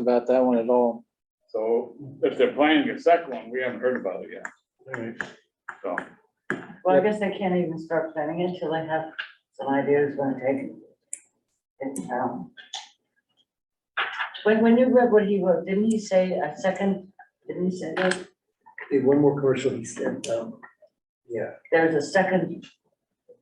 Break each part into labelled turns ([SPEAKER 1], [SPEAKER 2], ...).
[SPEAKER 1] about that one at all.
[SPEAKER 2] So if they're planning a second one, we haven't heard about it yet,
[SPEAKER 3] Alright,
[SPEAKER 2] so.
[SPEAKER 4] Well, I guess they can't even start planning it till they have some ideas when to take it down. When, when you read what he wrote, didn't he say a second, didn't he say that
[SPEAKER 3] did one more commercial he said, um, yeah,
[SPEAKER 4] there's a second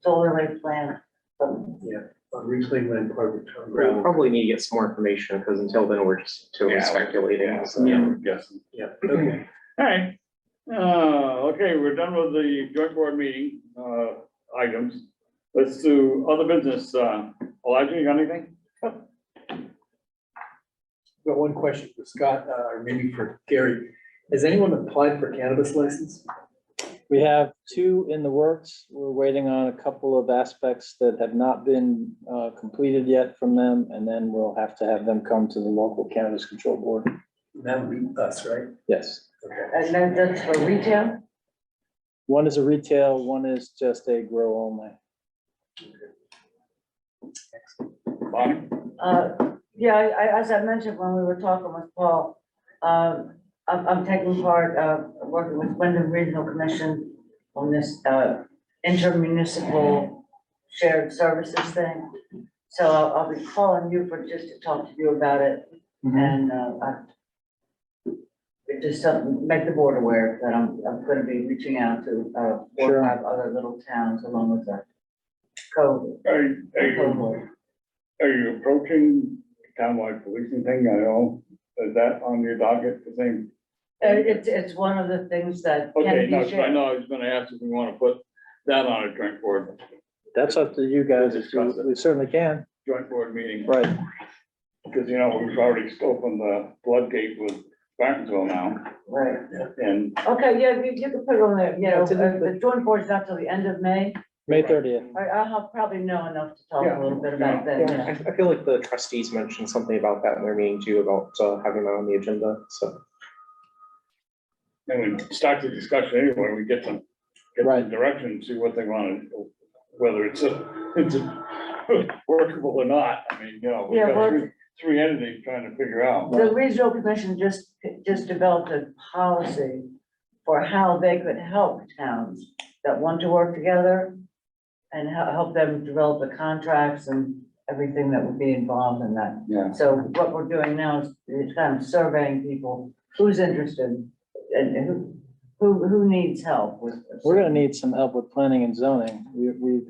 [SPEAKER 4] solar array plan? But
[SPEAKER 3] on reclaim land part of the town
[SPEAKER 5] We'll
[SPEAKER 3] ground.
[SPEAKER 5] probably need to get some more information, because until then, we're just totally
[SPEAKER 2] Yeah.
[SPEAKER 5] speculating, so.
[SPEAKER 2] I'm guessing.
[SPEAKER 3] Yeah, okay.
[SPEAKER 2] All right, uh, okay, we're done with the joint board meeting, uh, items. Let's do other business, uh, Elijah, you got anything?
[SPEAKER 3] Got one question for Scott, uh, or maybe for Gary. Has anyone applied for cannabis license?
[SPEAKER 1] We have two in the works. We're waiting on a couple of aspects that have not been uh, completed yet from them, and then we'll have to have them come to the local cannabis control board.
[SPEAKER 3] That would be us, right?
[SPEAKER 1] Yes.
[SPEAKER 3] Okay.
[SPEAKER 4] And then that's for retail,
[SPEAKER 1] One is a retail, one is just a grow only.
[SPEAKER 2] Bonnie?
[SPEAKER 4] uh, yeah, I, I, as I mentioned when we were talking with Paul, um, I'm, I'm taking part, uh, working with Wyndham Regional Commission on this, uh, intermunicipal shared services thing. So I'll I'll be calling you for, just to talk to you about it and, uh, I- it just something, make the board aware that I'm, I'm gonna be reaching out to, uh, four
[SPEAKER 1] Sure.
[SPEAKER 4] or five other little towns along with the code,
[SPEAKER 2] Are, you- are you,
[SPEAKER 4] code.
[SPEAKER 2] are you approaching townwide policing thing? I know, is that on your docket, the same?
[SPEAKER 4] Uh, It's, it's one of the things that
[SPEAKER 2] Okay,
[SPEAKER 4] can
[SPEAKER 2] no,
[SPEAKER 4] be
[SPEAKER 2] 'cause I
[SPEAKER 4] shared.
[SPEAKER 2] know, I was gonna ask if we wanna put that on a joint board,
[SPEAKER 1] That's up to you guys. if you- We certainly can.
[SPEAKER 2] joint board meeting.
[SPEAKER 1] Right.
[SPEAKER 2] Because, you know, we've already opened the floodgate with Bartonville now,
[SPEAKER 4] Right,
[SPEAKER 2] and
[SPEAKER 4] okay, yeah, you, you can put it on there, you know,
[SPEAKER 1] It's in the-
[SPEAKER 4] uh, the joint board's not till the end of May.
[SPEAKER 1] May thirtieth.
[SPEAKER 4] I, I'll probably know enough to talk
[SPEAKER 2] Yeah,
[SPEAKER 4] a little bit about that, you know.
[SPEAKER 5] I, I feel like the trustees mentioned something about that in their meeting too, about uh, having that on the agenda, so.
[SPEAKER 2] then we start the discussion anyway, we get them, get
[SPEAKER 1] Right.
[SPEAKER 2] some direction, see what they want, to whether it's a, it's a workable or not, I mean, you know, we've
[SPEAKER 4] Yeah,
[SPEAKER 2] got
[SPEAKER 4] well-
[SPEAKER 2] three, three entities trying to figure out.
[SPEAKER 4] The regional commission just, just developed a policy for how they could help towns that want to work together and hel- help them develop the contracts and everything that would be involved in that.
[SPEAKER 2] Yeah.
[SPEAKER 4] So what we're doing now is is kind of surveying people, who's interested and and who, who, who needs help with this.
[SPEAKER 1] We're gonna need some help with planning and zoning. We, we've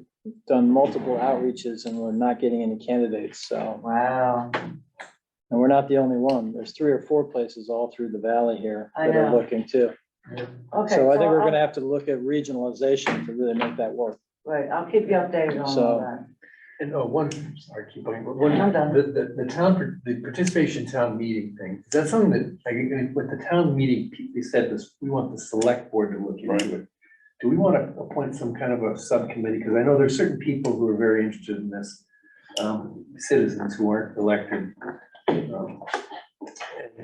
[SPEAKER 1] done multiple outreaches and we're not getting any candidates, so.
[SPEAKER 4] Wow,
[SPEAKER 1] And we're not the only one. There's three or four places all through the valley here
[SPEAKER 4] I
[SPEAKER 1] that are
[SPEAKER 4] know.
[SPEAKER 1] looking too.
[SPEAKER 4] okay.
[SPEAKER 1] So I think we're
[SPEAKER 4] I'll-
[SPEAKER 1] gonna have to look at regionalization to really make that work.
[SPEAKER 4] Right, I'll keep you updated on all
[SPEAKER 1] So-
[SPEAKER 4] that.
[SPEAKER 3] And, oh, one, sorry, keep going, but one,
[SPEAKER 4] I'm done.
[SPEAKER 3] the, the, the town, par- the participation town meeting thing, is that something that, like, uh, with the town meeting, pe- they said this, we want the select board to look
[SPEAKER 2] Right.
[SPEAKER 3] into it. Do we want to appoint some kind of a subcommittee? Because I know there's certain people who are very interested in this, um, citizens who aren't elected. Um,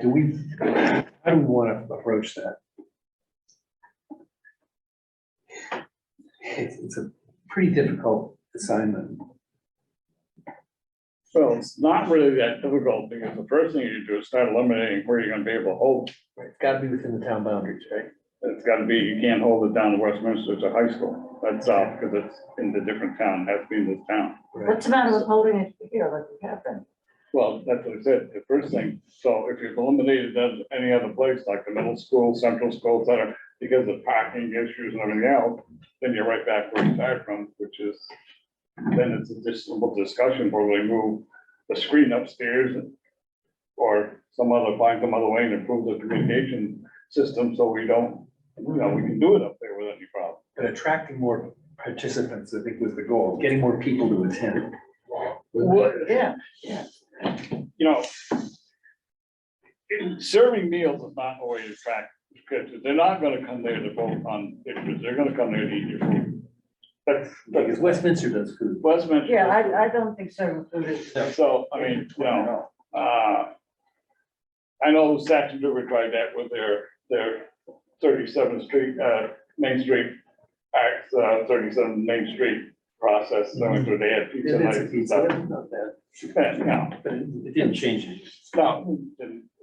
[SPEAKER 3] Do we, how do we want to approach that? It's, it's a pretty difficult assignment.
[SPEAKER 2] So it's not really that difficult, because the first thing you do is start eliminating where you're gonna be able to hold,
[SPEAKER 3] Right, It's gotta be within the town boundaries, right?
[SPEAKER 2] it's gotta be, you can't hold it down to Westminster to high school, that's all, because it's in the different town, has to be in this town.
[SPEAKER 4] What's the matter with holding it here like we have been?
[SPEAKER 2] Well, that's what I said, the first thing, so if you've eliminated that at any other place, like the middle school, central school, center, because of parking issues and everything else, then you're right back where you started from, which is, then it's a disable discussion where we move the screen upstairs or some other, find some other way and improve the communication system, so we don't, you know, we can do it up there without any problem.
[SPEAKER 3] But attracting more participants, I think was the goal, getting more people to attend.
[SPEAKER 4] Yeah.
[SPEAKER 2] you know, it- serving meals is not a way to track scriptures. They're not gonna come there to vote on issues. They're gonna come there to eat your food. That's,
[SPEAKER 3] Because
[SPEAKER 2] that's
[SPEAKER 3] Westminster does food.
[SPEAKER 2] Westminster.
[SPEAKER 4] Yeah, I, I don't think serving food is,
[SPEAKER 2] So, I mean, you know, uh, I know Saxon River tried that with their, their thirty-seventh street, uh, Main Street, Acts, uh, thirty-seven Main Street process, so they had pizza
[SPEAKER 3] It's a
[SPEAKER 2] nights and
[SPEAKER 3] pizza,
[SPEAKER 2] stuff.
[SPEAKER 3] that's not bad,
[SPEAKER 2] Yeah, no,
[SPEAKER 3] but it it didn't change it.
[SPEAKER 2] no, didn't